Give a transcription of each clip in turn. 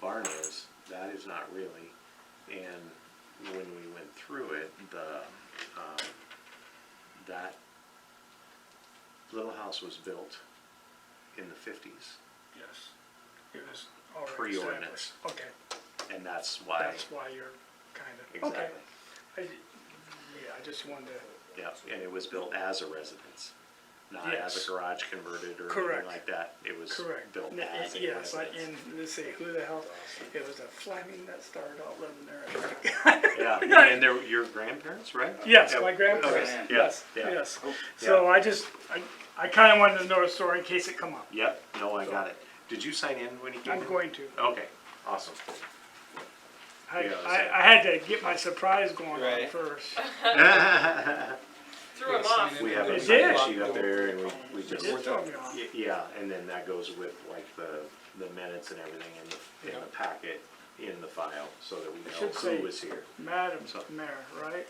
barn is, that is not really. And when we went through it, the, um, that little house was built in the fifties. Yes. It was already Pre-ordinance. established. Okay, And that's why, that's why you're kinda, okay. exactly. I, yeah, I just wanted to, Yeah, and it was built as a residence, not as Yes. a garage converted or Correct. anything like that. It was correct. built N- as a Yes, I, residence. and let's see, who the hell, it was a Fleming that started out living there. Yeah, and they were your grandparents, right? Yes, Yeah, my grandparents, okay, yeah, yes, yeah. yes. So yeah. I just, I, I kinda wanted to know the story in case it come up. Yep, no, I got it. Did you sign in when you came in? I'm going to. Okay, awesome. I, Yeah, so- I, I had to get my surprise going on Right. first. Threw him off. We have a It sign did. sheet up there and we, we It just, did throw me off. Y- yeah, and then that goes with like the, the minutes and everything in the, in the packet, in the file, so that we know should say- who was here. Madam So- Mayor, right?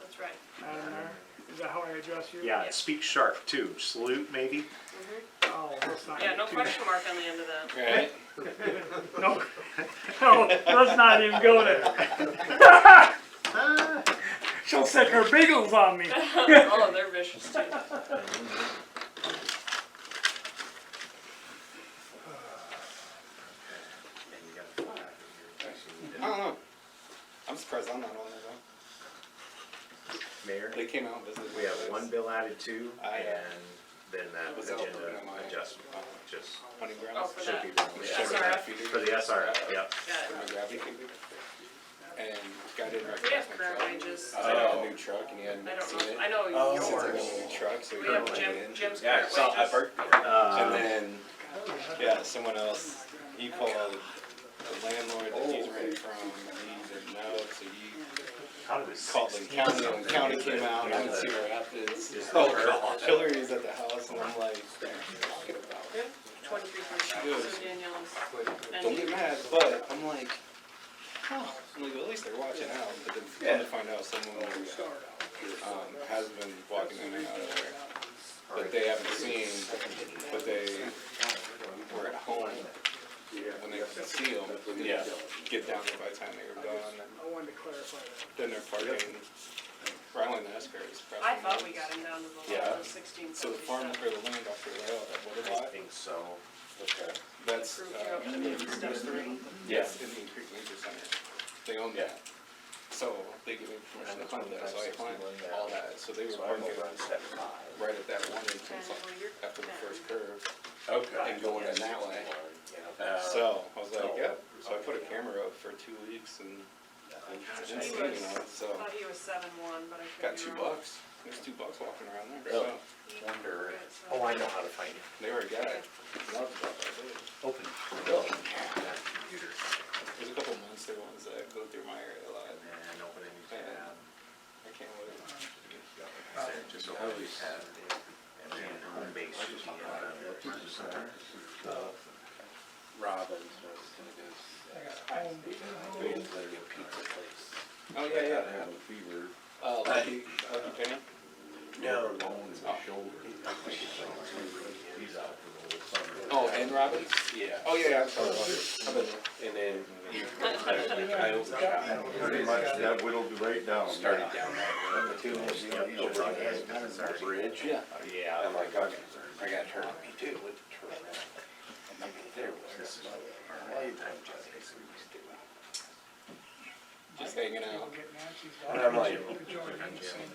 That's right. Madam Mayor, is that how I address you? Yeah, Yeah. speak sharp too, salute maybe? Oh, let's not Yeah, get no too- question mark on the end of that. Right. No, no, let's not even go there. She'll set her bagels on me. Oh, they're vicious too. I don't know. I'm surprised I'm not on there though. Mayor, They came out and visited. we have one bill added to I, uh, and then that was agenda open on my- adjustment, uh, just Hunting grounds. Oh, for Should that. be Yeah. should be SRF. feeder. for the SRF, yep. Got For it. my gravity feeder. And guy didn't We recognize have my current truck. wages. I had a new truck and he I hadn't don't seen it. know, I know Since I got yours. a new truck, so he We have couldn't Jim, let it in. Jim's Yeah, current it's not- I wages. burnt- And Uh, then, yeah, someone else, he called the landlord that he's renting from, and he didn't know, so he how did this? called the county, and the county came out, and I'm in Cedar Rapids. Oh, Hillary was at the house, and I'm like, what are you talking about? Twenty-three percent, so Danielle's, Don't get mad, but I'm like, huh, I'm like, at least they're watching out, but then come to find out someone, um, has been walking in and out of there. But they haven't seen, but they were at home when they could see them, Yeah. get down there by the time they were gone, I wanted to clarify that. then they're parking, Ryland Escar is I pressing. thought we got him down to the Yeah. level of sixteen So the farm seventy-seven. for the land off the rail, that water I lot, think so. that's, Approved you up uh, to the step three. Yes, Indian Creek Nature Center. They own Yeah. that. So they gave me permission to hunt that, so I hunted all that. So they were So I'm parking over on step five. right at that one And entrance well, you're- after the first curve Okay. and going in that way. Uh, So I was like, yep. So I put a camera up for two weeks and didn't He see was, anyone, so thought he was seven-one, but I got could be two wrong. bucks. There's two bucks walking around there. So Really? Wonder, Good, so- oh, I know how to find it. they were a guy. Loved it. Open. Really? There's a couple months there ones that go through my area a lot. And open a new tab. I can't wait. There, Just open a new tab. And then home base should be, uh, somewhere. Robin's was gonna go. uh, They had literally a pizza place. Oh, yeah, yeah. Had a fever. Uh, Lucky, Lucky Penny. No. On his shoulder. He's out for the whole summer. Oh, and Robbins? Yeah. Oh, yeah, yeah, I'm sorry. I've been there. And then. I overshot. Pretty much, that whittled right down. Started down that way. Over on the bridge. Oh, Yeah. Oh, Yeah, I'm like, okay, I got hurt on me too, with the turn around. And I mean, there was this like, our lifetime just basically was doing. Just hanging out. We'll get Nancy's And daughter I'm like, to join in and sing.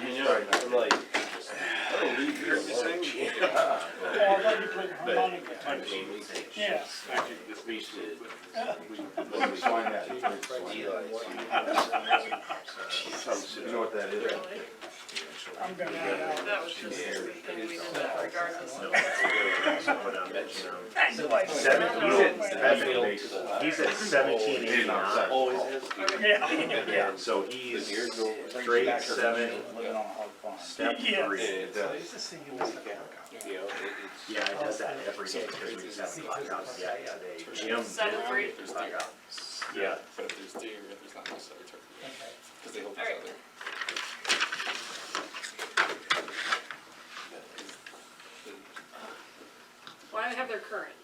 you know, I'm like. Yeah, I thought you played harmonica. I mean, Yes. at least it. Let me find that. You know what that is? Really? I'm gonna add out. That was just this weekend, we did that regardless of. Seven, he's at, seven- he's at seventeen eighty-nine. Always has. Yeah, Oh, Yeah, so he's grade seven, step Yes. three. You know, it- Yeah, it does that every day, because we just haven't locked out yet today. Jim, Seven three, it's like, yeah, but if there's deer, if there's not much that we took. Cause they hold each All right. other. why have their current?